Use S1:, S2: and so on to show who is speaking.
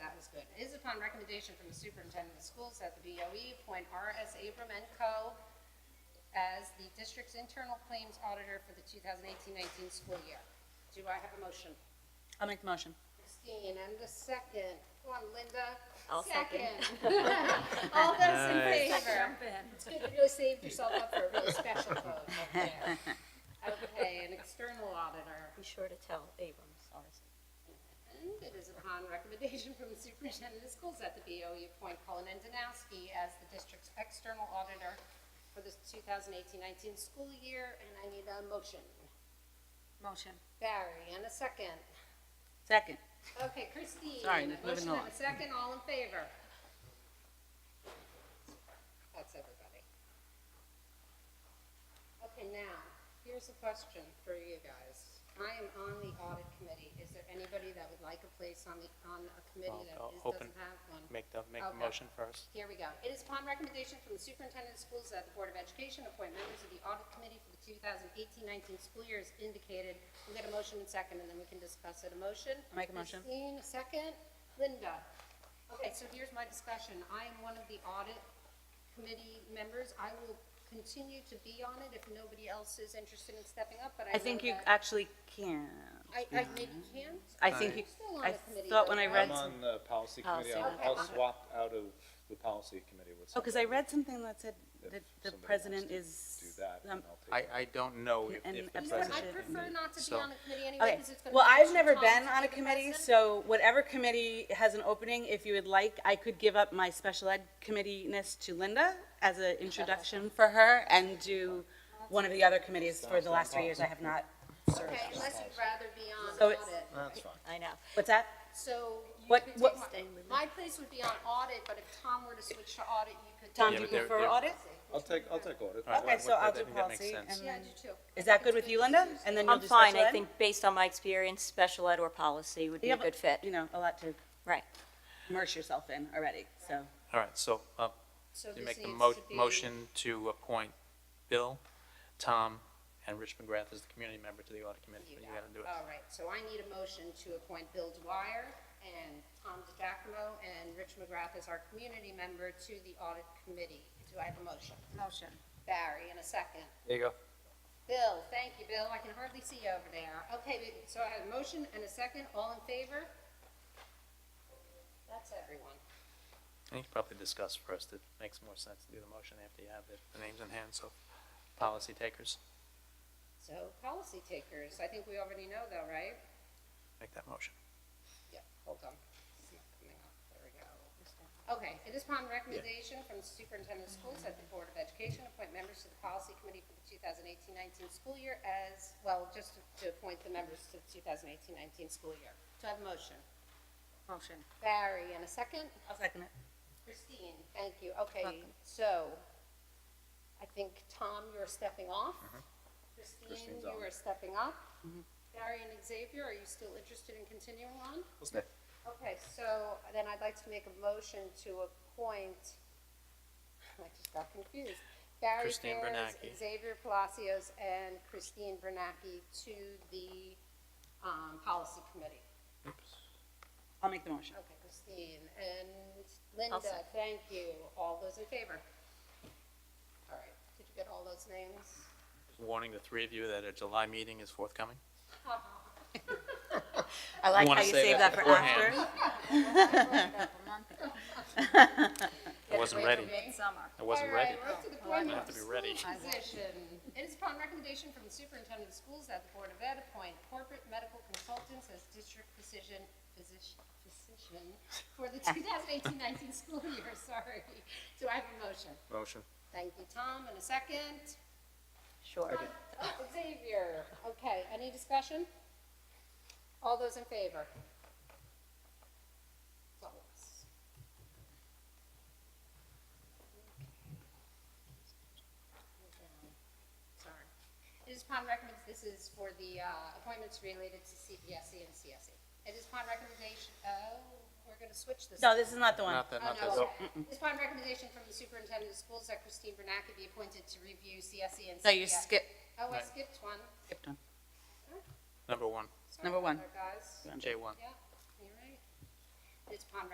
S1: upon recommendation from the superintendent of schools at the BOE, appoint R.S. Abram and Co. as the district's internal claims auditor for the 2018-19 school year. Do I have a motion?
S2: I'll make the motion.
S1: Christine, and the second. Come on, Linda.
S3: I'll second.
S1: All those in
S4: Nice.
S1: favor? It's good you really saved yourself up for a really special vote up there. Okay, an external auditor.
S3: Be sure to tell Abrams, ours.
S1: And it is upon recommendation from the superintendent of schools at the BOE, appoint Colin Andanowski as the district's external auditor for the 2018-19 school year, and I need a motion.
S2: Motion.
S1: Barry, and a second.
S2: Second.
S1: Okay, Christine.
S2: Sorry,
S1: a
S2: moving
S1: Motion
S2: along.
S1: and a second, all in favor? That's everybody. Okay, now, here's a question for you guys. I am on the audit committee. Is there anybody that would like a place on the, on a committee
S4: Well,
S1: that
S4: I'll
S1: is-
S4: open-
S1: doesn't have one?
S4: Make the, make
S1: Okay.
S4: the motion first.
S1: Here we go. It is upon recommendation from the superintendent of schools that the Board of Education appoint members of the audit committee for the 2018-19 school year as indicated. We'll get a motion in second, and then we can discuss it. A motion?
S2: I'll make a motion.
S1: Christine, a second. Linda? Okay, so here's my discussion. I am one of the audit committee members. I will continue to be on it if nobody else is interested in stepping up, but I
S2: I
S1: know
S2: think you
S1: that-
S2: actually can.
S1: I, I maybe can.
S2: I think you,
S1: Still on
S2: I
S1: the committee,
S2: thought
S1: though,
S2: when I
S1: right?
S2: read,
S5: I'm on the policy
S3: Policy.
S5: committee. I'll,
S1: Okay.
S5: I'll swap out of the policy committee with
S2: oh, because I
S5: somebody
S2: read something that said
S5: if
S2: that the
S5: somebody wants
S2: president
S5: to
S2: is.
S5: Do that, then
S2: um,
S5: I'll take
S6: I,
S5: it.
S6: I don't know if,
S2: And-
S6: if the
S2: and
S1: You know what,
S6: president.
S1: I prefer not to be
S6: So-
S1: on a committee anyway,
S2: Okay,
S1: because it's gonna.
S2: well,
S1: be
S2: I've
S1: extra
S2: never
S1: time
S2: been
S1: to
S2: on a
S1: take
S2: committee,
S1: person.
S2: so whatever committee has an opening, if you would like, I could give up my special ed committee-ness to Linda as an introduction for her and do one of the other committees for the last three years I have not served.
S1: Okay, unless you'd rather be on
S2: So it's-
S1: audit.
S5: That's fine.
S3: I know.
S2: What's that?
S1: So you
S2: What-
S1: could
S2: what-
S1: take my-
S3: Stay with
S1: My place would be on audit, but if Tom were to switch to audit, you could.
S2: Tom,
S1: take-
S4: Yeah,
S2: do you
S4: but they're-
S2: prefer
S4: they're-
S2: audit?
S5: I'll take, I'll take audit.
S4: All right.
S2: Okay, so
S4: I
S2: I'll do
S4: think that makes
S2: policy,
S4: sense.
S2: and
S1: Yeah, I
S2: then,
S1: do too.
S2: is that good with you, Linda? And then you'll
S3: I'm
S2: do
S3: fine.
S2: special
S3: I
S2: ed?
S3: think based on my experience, special ed or policy would be
S2: You
S3: a
S2: have,
S3: good
S2: You
S3: fit.
S2: know, a lot to
S3: Right.
S2: immerse yourself in already, so.
S4: All right, so, uh,
S1: So
S4: you
S1: this
S4: make the
S1: needs
S4: mo-
S1: to be-
S4: motion to appoint Bill, Tom, and Rich McGrath as the community member to the audit committee,
S1: You
S4: but you
S1: got
S4: gotta
S1: it.
S4: do it.
S1: All right, so I need a motion to appoint Bill Dwyer and Tom DiGacomo and Rich McGrath as our community member to the audit committee. Do I have a motion?
S2: Motion.
S1: Barry, in a second.
S4: There you go.
S1: Bill, thank you, Bill. I can hardly see you over there. Okay, we- so I have a motion and a second. All in favor? That's everyone.
S4: And you can probably discuss first, it makes more sense to do the motion after you have the, the names in hand, so, policy takers,
S1: So policy takers, I think we already know though, right?
S4: make that motion.
S1: Yeah, hold on. It's not coming up. There we go. Okay, it is upon recommendation from the superintendent of schools that the Board of Education appoint members to the policy committee for the 2018-19 school year as, well, just to- to appoint the members to the 2018-19 school year. Do I have a motion?
S2: Motion.
S1: Barry, and a second?
S2: I'll second it.
S1: Christine, thank you. Okay, so I think, Tom, you're stepping off. Christine,
S5: Uh-huh. Christine's
S1: you
S5: on.
S1: are stepping up. Barry and Xavier, are you still interested in continuing on?
S5: Let's-
S1: Okay, so then I'd like to make a motion to appoint, I just got confused. Barry
S4: Christine
S1: Ferris,
S4: Bernacchi.
S1: Xavier Palacios, and Christine Bernacki to the um, Policy Committee.
S2: I'll make the motion.
S1: Okay, Christine and Linda,
S3: second.
S1: thank you. All those in favor? All right, did you get all those names?
S4: Warning the three of you that a July meeting is forthcoming.
S2: I like
S4: wanna
S2: how you
S4: say
S2: save
S4: that
S2: that for
S4: beforehand.
S2: after.
S4: I wasn't ready, I wasn't ready.
S1: All right, we're up to the appointment
S4: have
S1: of
S4: to be
S1: school
S4: ready.
S1: physician. It is upon recommendation from the superintendent of schools that the Board of Ed appoint corporate medical consultants as district physician, physician, physician for the 2018-19 school year, sorry. Do I have a motion?
S5: Motion.
S1: Thank you, Tom, and a second.
S3: Sure.
S1: Oh, Xavier, okay, any discussion? All those in favor? It's all of us. Sorry. It is upon recommend, this is for the uh, appointments related to CPSC and CSE. It is upon recommendation, oh, we're going to switch this.
S2: No, this is not the one.
S4: Not that,
S1: Oh,
S4: not
S1: no,
S4: that.
S1: okay. It's upon recommendation from the superintendent of schools that Christine Bernacki be appointed to review CSE and CPSE.
S2: No, you skip,
S1: Oh, I
S4: Right.
S1: skipped one.
S2: skipped one.
S4: Number one,
S1: Sorry
S2: Number
S1: about
S2: one.
S1: that, Guys,
S4: J one.
S1: yeah, you're right. It's upon